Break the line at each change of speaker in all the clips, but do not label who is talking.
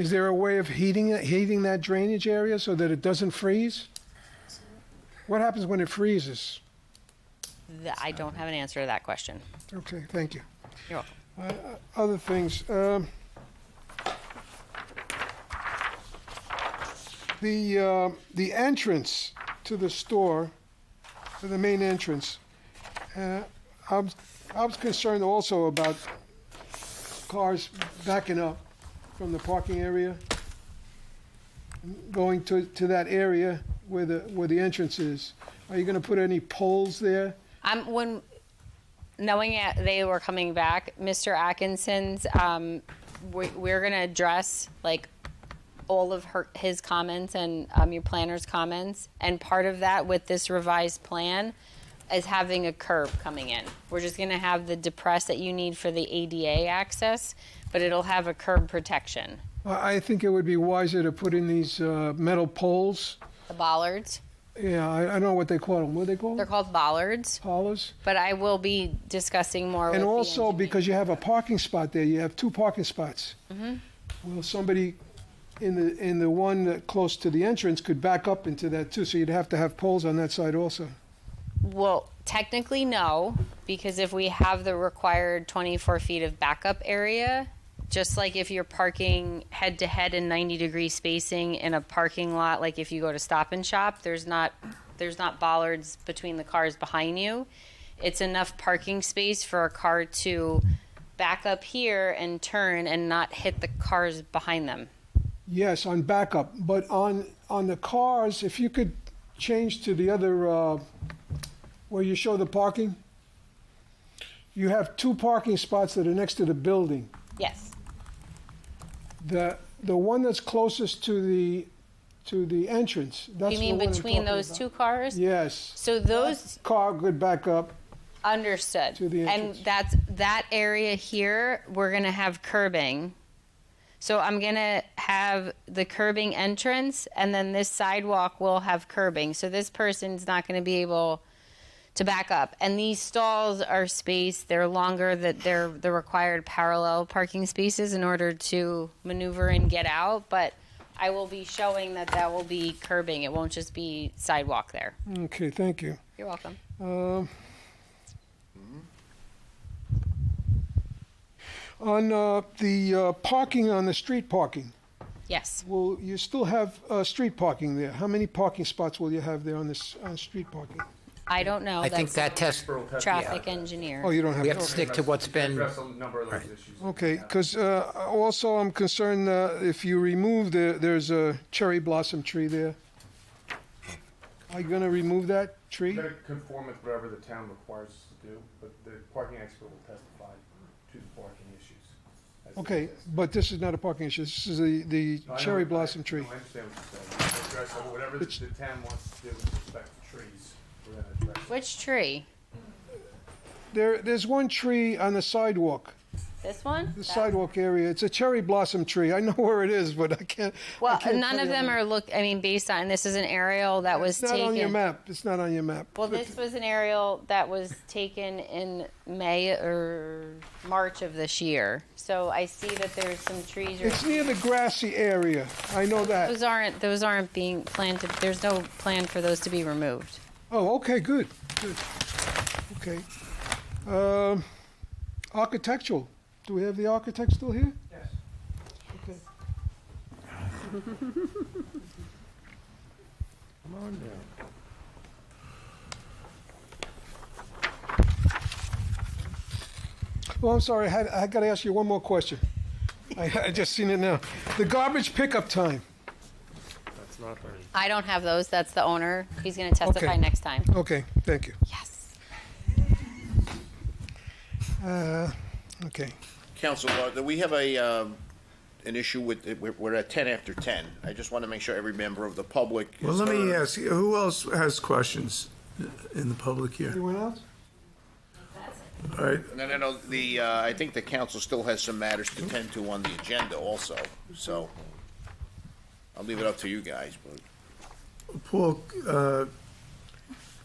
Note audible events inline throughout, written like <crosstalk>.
Is there a way of heating, it- heating that drainage area so that it doesn't freeze? What happens when it freezes?
Th- I don't have an answer to that question.
Okay, thank you. Uh,
You're welcome.
Other things, um, the, uh, the entrance to the store, to the main entrance, uh, I was, I was concerned also about cars backing up from the parking area, going to, to that area where the, where the entrance is. Are you gonna put any poles there?
Um, when knowing that they were coming back, Mr. Atkinson's, um, we, we're gonna address like all of her, his comments and um, your planner's comments, and part of that with this revised plan is having a curb coming in. We're just gonna have the depress that you need for the ADA access, but it'll have a curb protection.
I I think it would be wiser to put in these uh, metal poles.
The bollards,
Yeah, I, I don't know what they call them. What do they call
they're
them?
called bollards,
Polars.
but I will be discussing more. with
And
the
also,
engineer.
because you have a parking spot there, you have two parking spots.
Mm-hmm.
Well, somebody in the, in the one that close to the entrance could back up into that too, so you'd have to have poles on that side also.
Well, technically, no, because if we have the required 24 feet of backup area, just like if you're parking head to head in 90 degree spacing in a parking lot, like if you go to Stop and Shop, there's not there's not bollards between the cars behind you. It's enough parking space for a car to back up here and turn and not hit the cars behind them.
Yes, on backup, but on, on the cars, if you could change to the other, uh, where you show the parking, you have two parking spots that are next to the building.
Yes.
The, the one that's closest to the, to the entrance, that's
you
the
mean
one I'm
between
talking
those
about.
two cars?
Yes.
So those
Car could back up.
Understood.
To the
and
entrance.
that's that area here, we're gonna have curbing. So I'm gonna have the curbing entrance and then this sidewalk will have curbing. So this person's not gonna be able to back up. And these stalls are spaced, they're longer that they're the required parallel parking spaces in order to maneuver and get out, but I will be showing that that will be curbing. It won't just be sidewalk there.
Okay, thank you.
You're welcome.
Um, On uh, the uh, parking, on the street parking,
Yes.
will you still have uh, street parking there? How many parking spots will you have there on this, on street parking?
I don't know.
I think
That's-
that test,
traffic
Oh,
engineer.
you don't have.
we have to
okay.
stick to what's been,
Address a number of those issues.
Okay, because also I'm concerned uh, if you remove the, there's a cherry blossom tree there. Are you going to remove that tree?
You gotta conform with whatever the town requires us to do, but the parking expert will testify to the parking issues. as they
Okay,
exist.
but this is not a parking issue, this is the, the
No, I know
cherry
what- I-
blossom
no,
tree.
I understand what you're saying. We'll Address whatever the the town wants to do with respect to trees, we're gonna address. it.
Which tree?
There, there's one tree on the sidewalk,
This one?
the
That-
sidewalk area, it's a cherry blossom tree, I know <laughs> where it is, but I can't. I
Well,
can't
none
tell
of
you.
them are look, I mean, based on, this is an aerial that was
It's not on your
taken.
map, it's not on your map.
Well, this was an aerial that was taken in May or March of this year. So I see that there's some trees.
It's
or-
near the grassy area, I know that.
Those aren't, those aren't being planted, there's no plan for those to be removed.
Oh, okay, good, good, okay. Um, Architectural, do we have the architect still here?
Yes.
Okay. Come on down. Well, Oh, I'm sorry, I, had- I gotta ask you one more question. I, I just seen it now. The garbage pickup time,
I don't have those, that's the owner. He's gonna testify
Okay.
next time.
okay, thank you,
Yes.
okay.
Council, uh, that we have a, um, an issue with, we're- we're at 10 after 10. I just want to make sure every member of the public is
Well, let me
heard.
ask, you, who else has questions in the public here?
Anyone else?
All right,
No, no, no, the, uh, I think the council still has some matters to tend to on the agenda also, so I'll leave it up to you guys, but.
Paul, uh,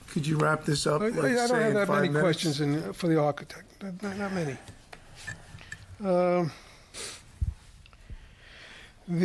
could you wrap this up,
I I
like, say, in
don't have that
five
many
minutes?
questions in- for the architect, Not- not not many. Um,